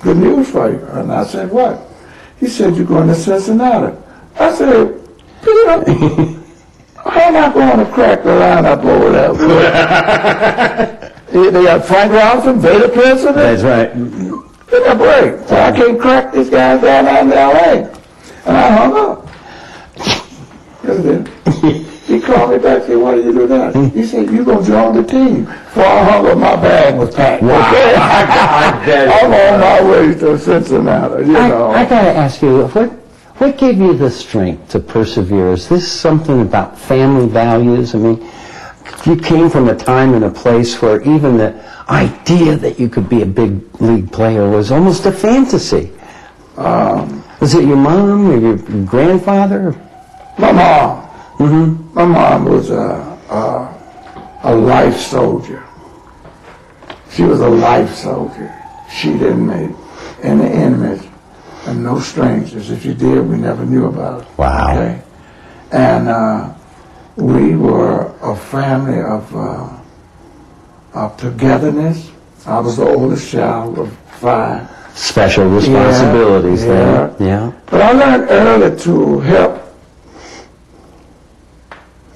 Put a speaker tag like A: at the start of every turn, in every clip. A: good news for you. And I said, what? He said, you're going to Cincinnati. I said, Peter, how am I going to crack the lineup over there? They- they got Frank Robinson, Vader Pearson, and
B: That's right.
A: Give me a break. So I can't crack these guys down out in LA. And I hung up. Yes, I did. He called me back and said, What did you do now? He said, you going to join the team. Before I hung up, my bag was packed. Okay? I'm on my way to Cincinnati, you know.
B: I, I got to ask you, what, what gave you the strength to persevere? Is this something about family values? I mean, you came from a time and a place where even the idea that you could be a big league player was almost a fantasy. was it your mom or your grandfather?
A: my mom, my mom was a, a, a life soldier. She was a life soldier. She didn't make any enemies and no strangers. If she did, we never knew about it.
B: Wow.
A: Okay? And uh, we were a family of, uh, of togetherness. I was the oldest child of five.
B: Special responsibilities there.
A: yeah.
B: Yeah.
A: But I learned early to help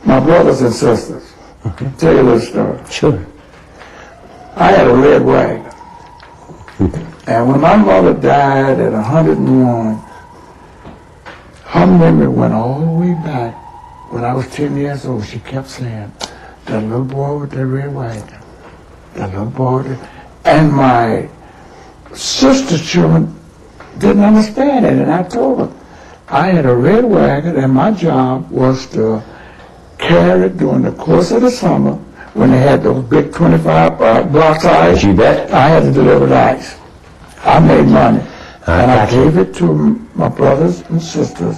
A: my brothers and sisters.
B: Okay.
A: Tell you a little story.
B: Sure.
A: I had a red wagon. And when my mother died at 101, her memory went all the way back. When I was 10 years old, she kept saying, that little boy with the red wagon, that little boy with the... And my sister children didn't understand it, and I told them. I had a red wagon, and my job was to carry it during the course of the summer when they had those big 25 uh, block size.
B: You bet.
A: I had to deliver the ice. I made money.
B: I
A: and I
B: got you.
A: gave it to m- my brothers and sisters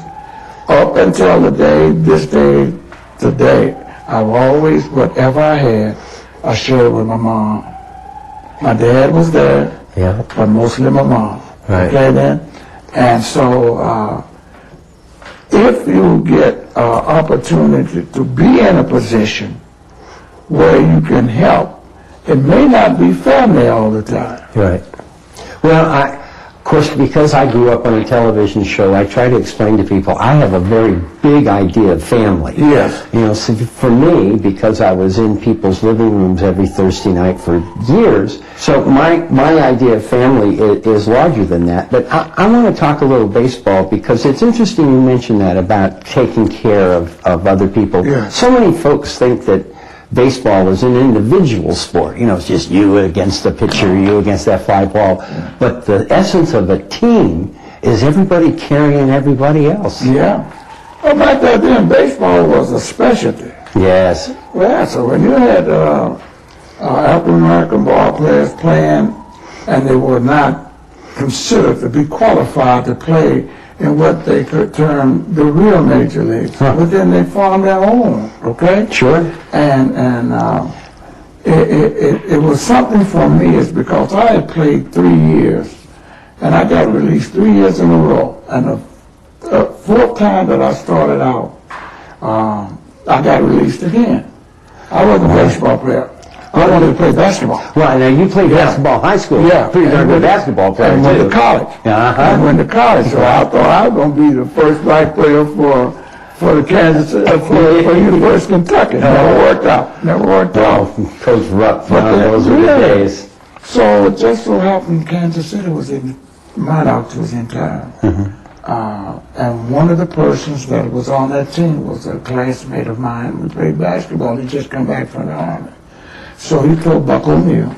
A: up until the day, this day, today. I've always, whatever I had, I shared it with my mom. My dad was there
B: Yeah.
A: but mostly my mom.
B: Right.
A: Okay then? And so, uh, if you get an opportunity to be in a position where you can help, it may not be family all the time.
B: Right. Well, I, of course, because I grew up on a television show, I try to explain to people I have a very big idea of family.
A: Yes.
B: You know, so for me, because I was in people's living rooms every Thursday night for years, so my, my idea of family is, is larger than that. But I, I want to talk a little baseball because it's interesting you mentioned that about taking care of, of other people.
A: Yeah.
B: So many folks think that baseball is an individual sport. You know, it's just you against the pitcher, you against that fly ball. But the essence of a team is everybody carrying everybody else.
A: Yeah. Well, back that then, baseball was a specialty.
B: Yes.
A: Yeah, so when you had uh, uh, African American ball players playing, and they were not considered to be qualified to play in what they could term the real major leagues,
B: Huh.
A: but then they formed their own. Okay.
B: Sure.
A: And and uh, it, it, it it was something for me is because I had played three years, and I got released three years in a row, and the the fourth time that I started out, um, I got released again. I wasn't a baseball player. I wanted to play basketball.
B: Well, now you played basketball in high school. Pretty darn
A: and
B: good
A: went-
B: basketball player,
A: And went to
B: too.
A: college.
B: Uh-huh.
A: And went to college, so I thought I was gonna be the first black player for, for the Kansas, uh, for, for University of Kentucky. Never worked out, never worked out.
B: Oh, Coach Rupp,
A: But
B: wow,
A: the-
B: those were the
A: really?
B: days.
A: So it just so happened Kansas City was in, my doctor was in town. Uh, and one of the persons that was on that team was a classmate of mine. We played basketball. He just come back from the army. So he told Buck O'Neill,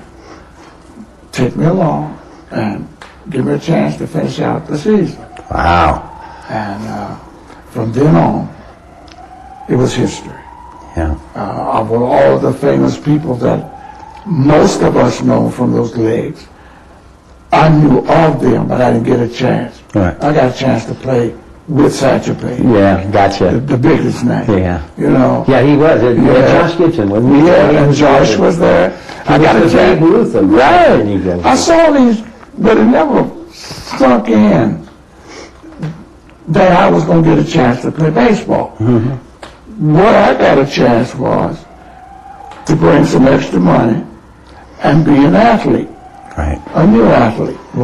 A: take me along and give me a chance to finish out the season.
B: Wow.
A: And uh, from then on, it was history
B: Yeah.
A: uh, of all the famous people that most of us know from those leagues. I knew of them, but I didn't get a chance.
B: Right.
A: I got a chance to play with Satchel Paige,
B: Yeah,
A: the,
B: gotcha.
A: the biggest name.
B: Yeah.
A: You know.
B: Yeah, he was. It-
A: Yeah.
B: Josh Gibson, wasn't he?
A: Yeah, and Josh was there. I got a
B: was the Babe
A: chance.
B: Ruth of
A: Right.
B: New Jersey.
A: I saw these, but it never sunk in that I was going to get a chance to play baseball. What I got a chance was to bring some extra money and be an athlete,
B: Right.
A: a new athlete.